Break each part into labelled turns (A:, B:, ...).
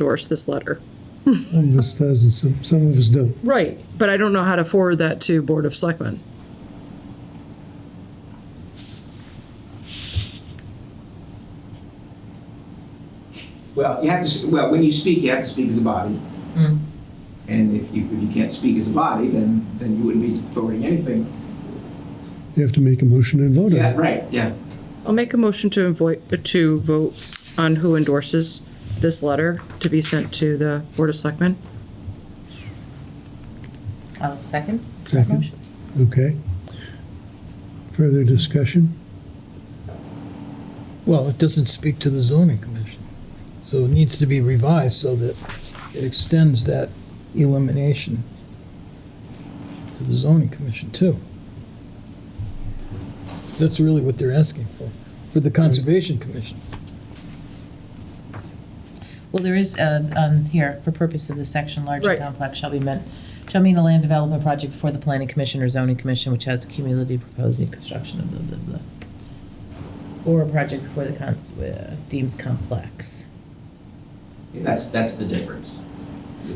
A: endorse this letter.
B: Some of us does and some, some of us don't.
A: Right, but I don't know how to forward that to Board of Selectmen.
C: Well, you have to, well, when you speak, you have to speak as a body. And if you, if you can't speak as a body, then, then you wouldn't be voting anything.
B: You have to make a motion and vote on
C: Yeah,
B: it.
C: right, yeah.
A: I'll make a motion to invoi- to vote on who endorses this letter to be sent to the Board of Selectmen.
D: I'll second.
B: Second,
D: Motion.
B: okay. Further discussion?
E: Well, it doesn't speak to the zoning commission. So it needs to be revised so that it extends that elimination to the zoning commission too. 'Cause That's really what they're asking for, for the conservation commission.
D: Well, there is, uh, um, here, for purpose of this section, larger
A: Right.
D: complex shall be meant, shall mean a land development project before the planning commission or zoning commission which has cumulative proposed new construction of blah, blah, blah. Or a project before the con, uh, deems complex.
C: That's, that's the difference.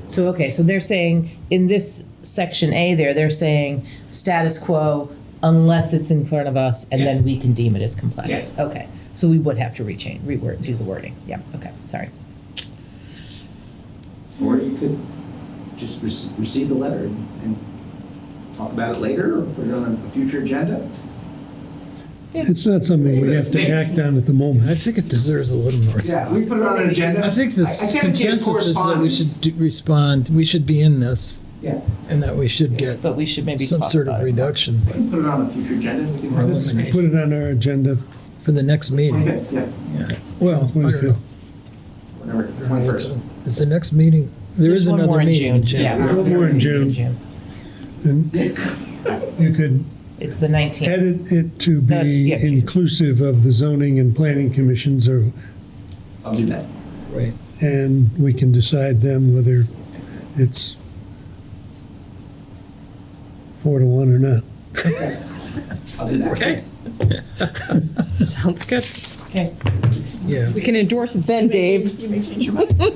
D: So, okay, so they're saying, in this section A there, they're saying status quo unless it's in front of us, and then
C: Yes.
D: we can deem it as complex.
C: Yes.
D: Okay, so we would have to rechange, reword, do the wording, yeah, okay, sorry.
C: Or you could just rec- receive the letter and, and talk about it later or put it on a future agenda.
B: It's not something we have to act on at the
E: I
B: moment.
E: think it deserves a little more.
C: Yeah, we put it on an agenda.
E: I think the
C: I sent it to his
E: consensus is that we should
C: correspondence.
E: do- respond, we should be in this
C: Yeah,
E: and that we should get
D: But we should maybe
E: some
D: talk
E: sort of
D: about it.
E: reduction
C: we can put it on a future agenda. We can
E: Or
B: Let's
E: eliminate.
B: put it on our agenda,
E: for the next meeting.
C: 25th, yeah,
E: Yeah. Well, I don't know.
B: Twenty-fifth.
C: whatever,
E: I don't know. It's-
C: 21st.
E: Is the next meeting, there is
D: There's one more
E: another
D: in
E: meeting in June.
D: Yeah.
B: One more in June. and you could
D: It's the nineteenth.
B: edit it to
D: That's-
B: be
D: yeah.
B: inclusive of the zoning and planning commissions or,
C: I'll do that.
E: Right.
B: and we can decide then whether it's four to one or not.
C: I'll do that.
A: Okay. Sounds good.
D: Okay.
E: Yeah.
A: We can endorse it then, Dave.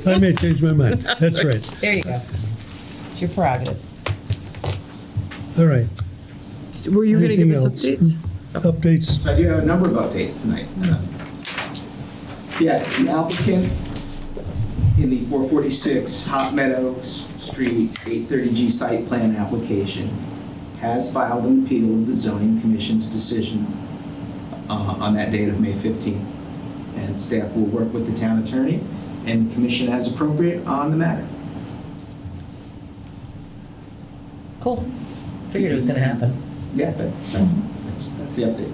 B: I may change my mind. That's right.
D: There you go. It's your prerogative.
B: All right.
A: Were you going to give us
B: Anything
A: updates?
B: Updates.
C: I do have a number of updates tonight. Yes, the applicant in the 446 Hot Meadows Street 830G site plan application has filed an appeal of the zoning commission's decision uh, on that date of May 15th. And staff will work with the town attorney and the commission as appropriate on the matter.
D: Cool. Figured it was gonna happen.
C: Yeah, that, that's, that's the update.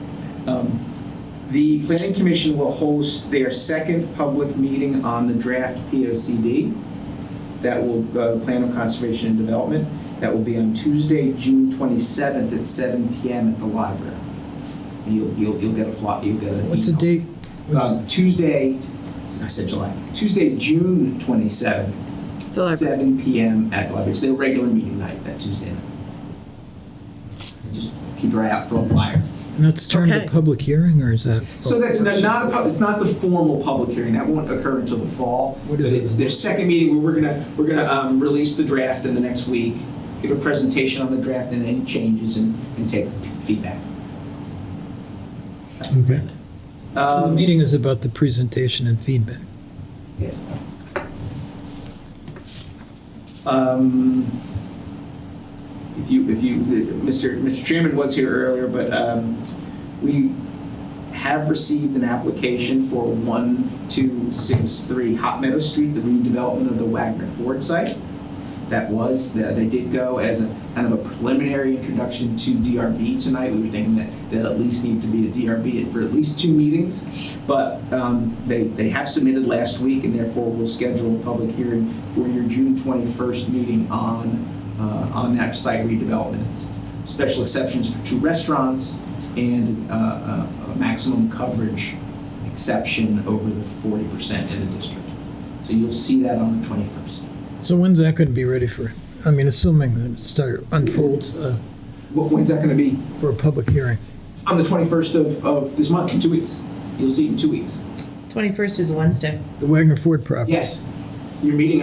C: Um, The planning commission will host their second public meeting on the draft P O C D. That will, uh, Plan of Conservation and Development, that will be on Tuesday, June twenty-seventh at seven P M at the library. You'll, you'll, you'll get a fly, you'll get an
E: What's the
C: email.
E: date?
C: Um, Tuesday, I said July, Tuesday, June twenty-seventh,
A: The library.
C: seven P M at the library. It's their regular meeting night, that Tuesday night. Just keep your eye out for a flyer.
E: And That's turned
A: Okay.
E: a public hearing or is that?
C: So that's not not a, pub- it's not the formal public hearing, that won't occur until the fall.
E: What is
C: But
E: it?
C: It's their second meeting, where we're gonna, we're gonna, um, release the draft in the next week, give a presentation on the draft and any changes and, and take feedback. That's the
B: Okay.
C: plan.
E: So the
C: Um,
E: meeting is about the presentation and feedback.
C: Yes. Um, If you, if you, Mr. Mr. Chairman was here earlier, but um, we have received an application for 1263 Hot Meadow Street, the redevelopment of the Wagner Ford site. That was, that they did go as a kind of a preliminary introduction to DRB tonight. We were thinking that that at least need to be a DRB for at least two meetings. But um, they, they have submitted last week and therefore we'll schedule a public hearing for your June 21st meeting on, uh, on that site redevelopment. It's Special exceptions for two restaurants and uh, a a maximum coverage exception over the 40% in the district. So you'll see that on the 21st.
E: So when's that going to be ready for? I mean, assuming that it start unfolds uh,
C: Wh- When's that going to be?
E: for a public hearing.
C: on the 21st of, of this month, in two weeks. You'll see it in two weeks.
D: Twenty-first is Wednesday.
E: The Wagner Ford property.
C: Yes. Your meeting